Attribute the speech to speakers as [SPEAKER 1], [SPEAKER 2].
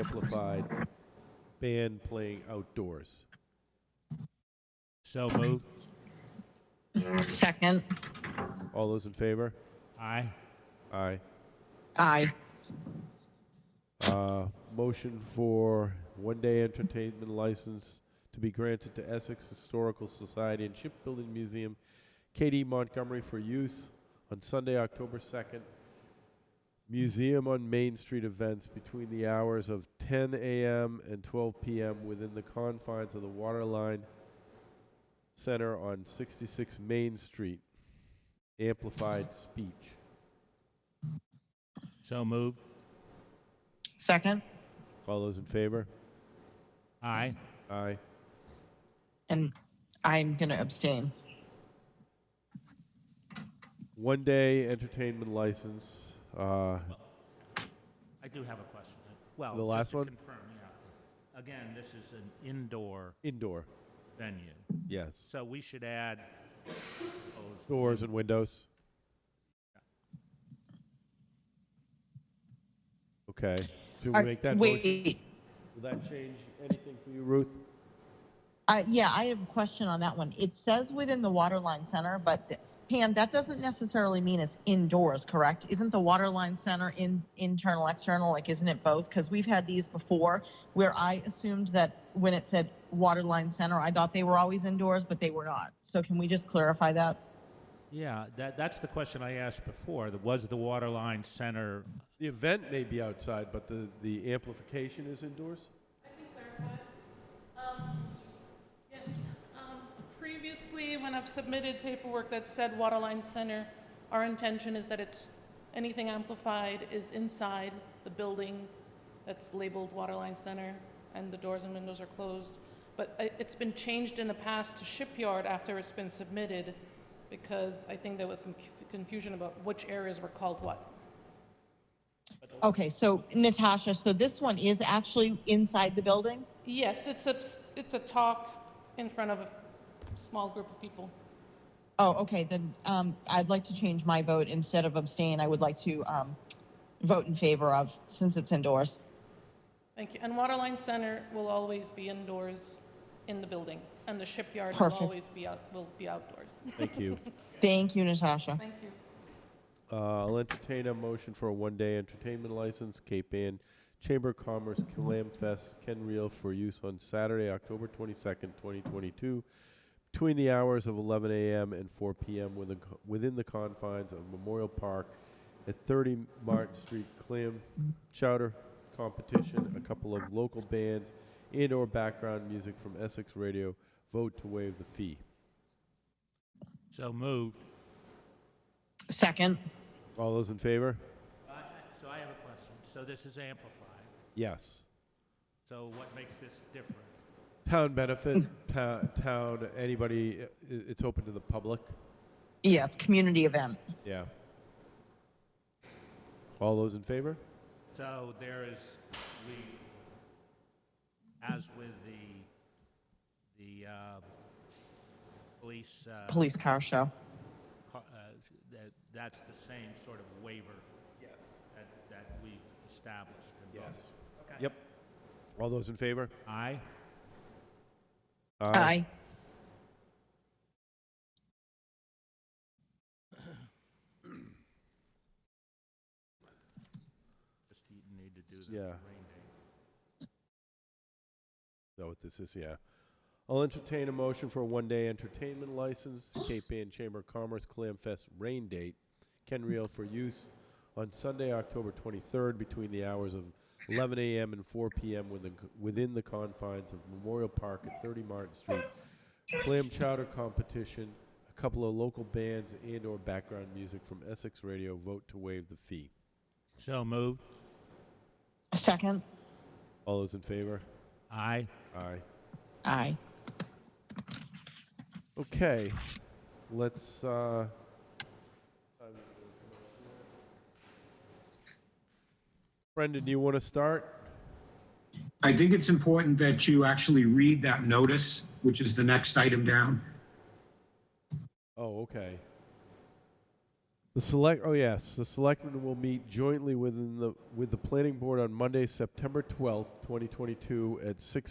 [SPEAKER 1] unamplified band playing outdoors.
[SPEAKER 2] So moved.
[SPEAKER 3] Second.
[SPEAKER 1] All those in favor?
[SPEAKER 2] Aye.
[SPEAKER 1] Aye.
[SPEAKER 3] Aye.
[SPEAKER 1] Uh, Motion for one-day entertainment license to be granted to Essex Historical Society and Shipbuilding Museum, K.D. Montgomery, for use on Sunday, October 2nd, Museum on Main Street events between the hours of 10 a.m. and 12 p.m. within the confines of the Waterline Center on 66 Main Street. Amplified speech.
[SPEAKER 2] So moved.
[SPEAKER 3] Second.
[SPEAKER 1] All those in favor?
[SPEAKER 2] Aye.
[SPEAKER 1] Aye.
[SPEAKER 3] And I'm going to abstain.
[SPEAKER 1] One day entertainment license. Uh,
[SPEAKER 2] I do have a question. Well,
[SPEAKER 1] The
[SPEAKER 2] just
[SPEAKER 1] last
[SPEAKER 2] to
[SPEAKER 1] one?
[SPEAKER 2] confirm, yeah. Again, this is an indoor
[SPEAKER 1] indoor.
[SPEAKER 2] venue,
[SPEAKER 1] Yes.
[SPEAKER 2] so we should add those
[SPEAKER 1] Doors and windows. Okay. Should we
[SPEAKER 3] Are-
[SPEAKER 1] make that motion?
[SPEAKER 3] Wait,
[SPEAKER 1] Will that change anything for you, Ruth?
[SPEAKER 3] I- yeah, I have a question on that one. It says within the Waterline Center, but th- Pam, that doesn't necessarily mean it's indoors, correct? Isn't the Waterline Center in, internal, external, like, isn't it both? Because we've had these before where I assumed that when it said Waterline Center, I thought they were always indoors, but they were not. So can we just clarify that?
[SPEAKER 2] Yeah, that, that's the question I asked before. that Was the Waterline Center,
[SPEAKER 1] The event may be outside, but the, the amplification is indoors?
[SPEAKER 4] Um, Yes, um, previously, when I've submitted paperwork that said Waterline Center, our intention is that it's, anything amplified is inside the building that's labeled Waterline Center, and the doors and windows are closed. But i- it's been changed in the past to Shipyard after it's been submitted, because I think there was some conf- confusion about which areas were called what.
[SPEAKER 3] Okay, so Natasha, so this one is actually inside the building?
[SPEAKER 4] Yes, it's a, it's a talk in front of a small group of people.
[SPEAKER 3] Oh, okay, then um, I'd like to change my vote. Instead of abstain, I would like to um, vote in favor of, since it's indoors.
[SPEAKER 4] Thank you. And Waterline Center will always be indoors in the building, and the shipyard will
[SPEAKER 3] Perfect.
[SPEAKER 4] always be out, will be outdoors.
[SPEAKER 1] Thank you.
[SPEAKER 3] Thank you, Natasha.
[SPEAKER 4] Thank you.
[SPEAKER 1] Uh, I'll entertain a motion for a one-day entertainment license, Cape Ann Chamber of Commerce Clam Fest, Ken Reel, for use on Saturday, October 22nd, 2022, between the hours of 11 a.m. and 4 p.m. within, co- within the confines of Memorial Park at 30 Martin Street Clam Chowder Competition, a couple of local bands, and/or background music from Essex Radio. Vote to waive the fee.
[SPEAKER 2] so moved.
[SPEAKER 3] Second,
[SPEAKER 1] All those in favor?
[SPEAKER 2] So I have a question. So this is amplified.
[SPEAKER 1] Yes.
[SPEAKER 2] So what makes this different?
[SPEAKER 1] Town benefit, ta- town, anybody, i- it's open to the public.
[SPEAKER 3] yeah, it's community event.
[SPEAKER 1] Yeah. All those in favor?
[SPEAKER 2] So there is, we, as with the, the uh, police, uh,
[SPEAKER 3] Police car show.
[SPEAKER 2] co- uh, that, that's the same sort of waiver that, that we've established. in both.
[SPEAKER 1] Yep. All those in favor?
[SPEAKER 2] Aye.
[SPEAKER 3] Aye.
[SPEAKER 2] Just you need to do the
[SPEAKER 1] Yeah.
[SPEAKER 2] rain
[SPEAKER 1] Is
[SPEAKER 2] date.
[SPEAKER 1] that what this is? Yeah. I'll entertain a motion for a one-day entertainment license, Cape Ann Chamber of Commerce Clam Fest rain date, Ken Reel for use on Sunday, October 23rd, between the hours of 11 a.m. and 4 p.m. within, within the confines of Memorial Park at 30 Martin Street. Clam chowder competition, a couple of local bands and/or background music from Essex Radio. Vote to waive the fee.
[SPEAKER 2] So moved.
[SPEAKER 3] Second,
[SPEAKER 1] All those in favor?
[SPEAKER 2] Aye.
[SPEAKER 1] Aye.
[SPEAKER 3] aye.
[SPEAKER 1] Okay, let's, uh, Brendan, do you want to start?
[SPEAKER 5] I think it's important that you actually read that notice, which is the next item down.
[SPEAKER 1] Oh, okay. The select, oh yes, the selectmen will meet jointly within the, with the planning board on Monday, September twelfth, twenty twenty-two at six